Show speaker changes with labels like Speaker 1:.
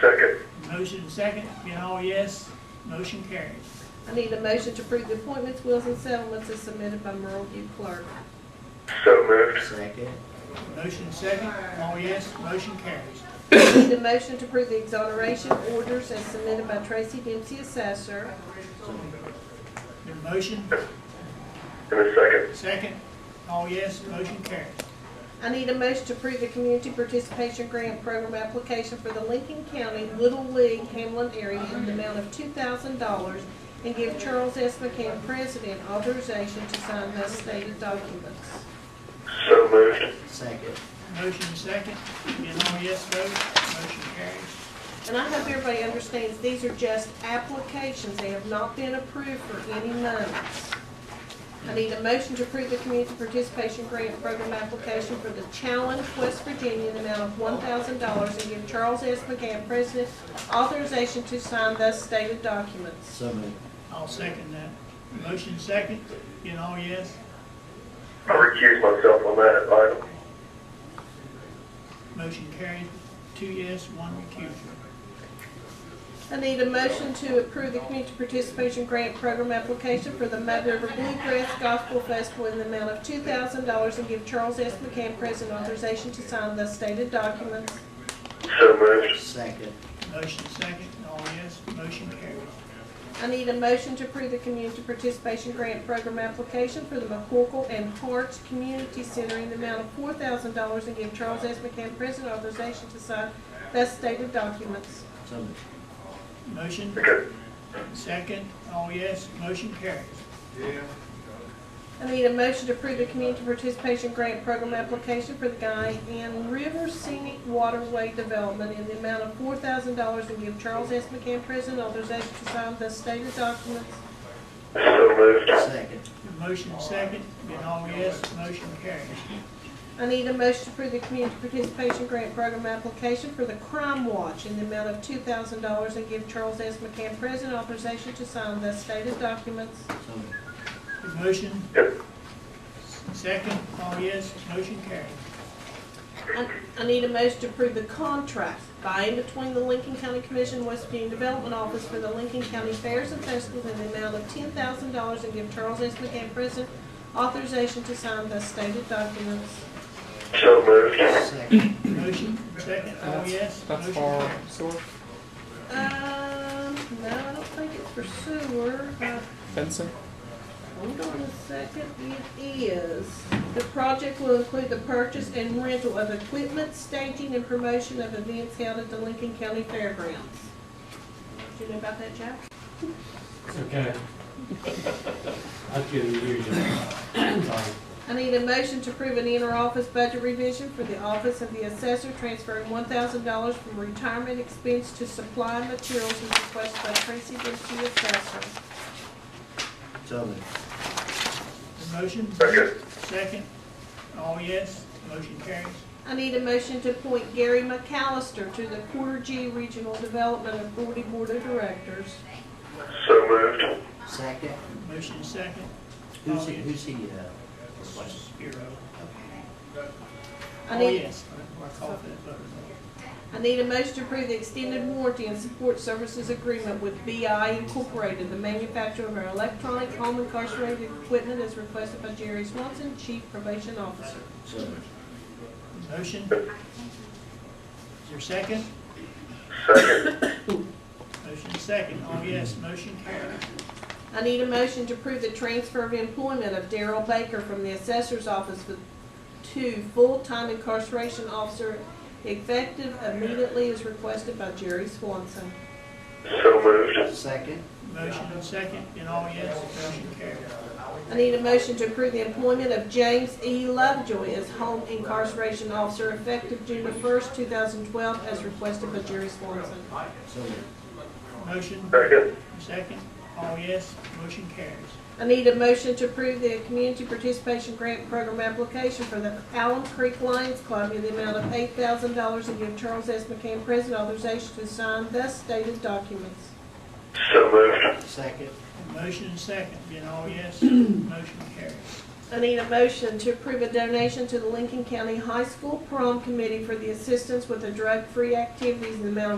Speaker 1: Second.
Speaker 2: Motion and second, being all yes, motion carries.
Speaker 3: I need a motion to approve the appointments, wills, and settlements as submitted by Merle U. Clerk.
Speaker 1: So moved.
Speaker 4: second,
Speaker 2: Motion and second, all yes, motion carries.
Speaker 3: I Need a motion to approve the exoneration orders as submitted by Tracy Dempsey, Assessor.
Speaker 2: Been a motion,
Speaker 1: And a second.
Speaker 2: second, all yes, motion carries.
Speaker 3: I need a motion to approve the Community Participation Grant Program application for the Lincoln County Little League Hamlin area in the amount of two thousand dollars and give Charles S. McCann, President, authorization to sign those stated documents.
Speaker 1: So moved.
Speaker 4: second,
Speaker 2: Motion and second, being all yes vote, motion carries.
Speaker 3: And I hope everybody understands, these are just applications, they have not been approved for any monies. I need a motion to approve the Community Participation Grant Program application for the Challenge West Virginia in the amount of one thousand dollars and give Charles S. McCann, President, authorization to sign thus stated documents.
Speaker 4: so moved,
Speaker 2: I'll second that. Motion and second, being all yes,
Speaker 1: I recuse myself on that item.
Speaker 2: motion carries, two yes, one recusal.
Speaker 3: I need a motion to approve the Community Participation Grant Program application for the Mud River Bluegrass Gospel Festival in the amount of two thousand dollars and give Charles S. McCann, President, authorization to sign thus stated documents.
Speaker 1: So moved.
Speaker 4: second,
Speaker 2: Motion second, all yes, motion carries.
Speaker 3: I need a motion to approve the Community Participation Grant Program application for the McCorkle and Harts Community Center in the amount of four thousand dollars and give Charles S. McCann President authorization to sign thus stated documents.
Speaker 4: so moved,
Speaker 2: Motion
Speaker 1: Okay.
Speaker 2: second, all yes, motion carries.
Speaker 3: I need a motion to approve the Community Participation Grant Program application for the Guyan River Scenic Waterway Development in the amount of four thousand dollars and give Charles S. McCann President authorization to sign thus stated documents.
Speaker 1: So moved.
Speaker 4: second,
Speaker 2: Motion second, being all yes, motion carries.
Speaker 3: I need a motion to approve the community participation grant program application for the Crime Watch in the amount of two thousand dollars and give Charles S. McCann President authorization to sign the stated documents.
Speaker 4: so moved,
Speaker 2: Motion
Speaker 1: Yep.
Speaker 2: second, all yes, motion carries.
Speaker 3: I, I need a motion to approve the contract by and between the Lincoln County Commission and West Virginia Development Office for the Lincoln County Fairs and Festivals in the amount of ten thousand dollars and give Charles S. McCann President authorization to sign the stated documents.
Speaker 1: So moved.
Speaker 4: second,
Speaker 2: Motion second, all yes,
Speaker 5: That's
Speaker 2: motion
Speaker 5: for
Speaker 2: carries.
Speaker 5: sewer
Speaker 3: Um, no, I don't think it's for sewer. Uh,
Speaker 5: fencing.
Speaker 3: Hold on a second, it is. The project will include the purchase and rental of equipment, staging, and promotion of events held at the Lincoln County Fairgrounds. Do you know about that, Jack?
Speaker 6: It's okay. I couldn't hear you. Sorry.
Speaker 3: I need a motion to approve an inter-office budget revision for the Office of the Assessor, transferring one thousand dollars from retirement expense to supply materials as requested by Tracy Dempsey, Assessor.
Speaker 4: so moved,
Speaker 2: Motion
Speaker 1: Second.
Speaker 2: second, all yes, motion carries.
Speaker 3: I need a motion to appoint Gary McAllister to the Porter G Regional Development Authority Board of Directors.
Speaker 1: So moved.
Speaker 4: second,
Speaker 2: Motion second,
Speaker 4: who's he, who's he, uh, replacing?
Speaker 2: Spiro.
Speaker 3: I
Speaker 2: All
Speaker 3: need,
Speaker 2: yes, I call for that vote.
Speaker 3: I need a motion to approve the extended warranty and support services agreement with BI Incorporated, the manufacturer of our electronic home incarcerated equipment as requested by Jerry Swanson, Chief Probation Officer.
Speaker 4: so moved,
Speaker 2: Motion. Is there a second?
Speaker 1: Second.
Speaker 2: Motion second, all yes, motion carries.
Speaker 3: I need a motion to approve the transfer of employment of Daryl Baker from the Assessor's Office for- to full-time incarceration officer effective immediately as requested by Jerry Swanson.
Speaker 1: So moved.
Speaker 4: second,
Speaker 2: Motion and second, and all yes, motion carries.
Speaker 3: I need a motion to approve the employment of James E. Lovejoy as home incarceration officer effective June the first, two thousand twelve, as requested by Jerry Swanson.
Speaker 4: so moved,
Speaker 2: Motion
Speaker 1: Second.
Speaker 2: second, all yes, motion carries.
Speaker 3: I need a motion to approve the community participation grant program application for the Allen Creek Lions Club in the amount of eight thousand dollars and give Charles S. McCann President authorization to sign thus stated documents.
Speaker 1: So moved.
Speaker 4: second,
Speaker 2: Motion and second, being all yes, motion carries.
Speaker 3: I need a motion to approve a donation to the Lincoln County High School Prom Committee for the assistance with the drug-free activities in the amount of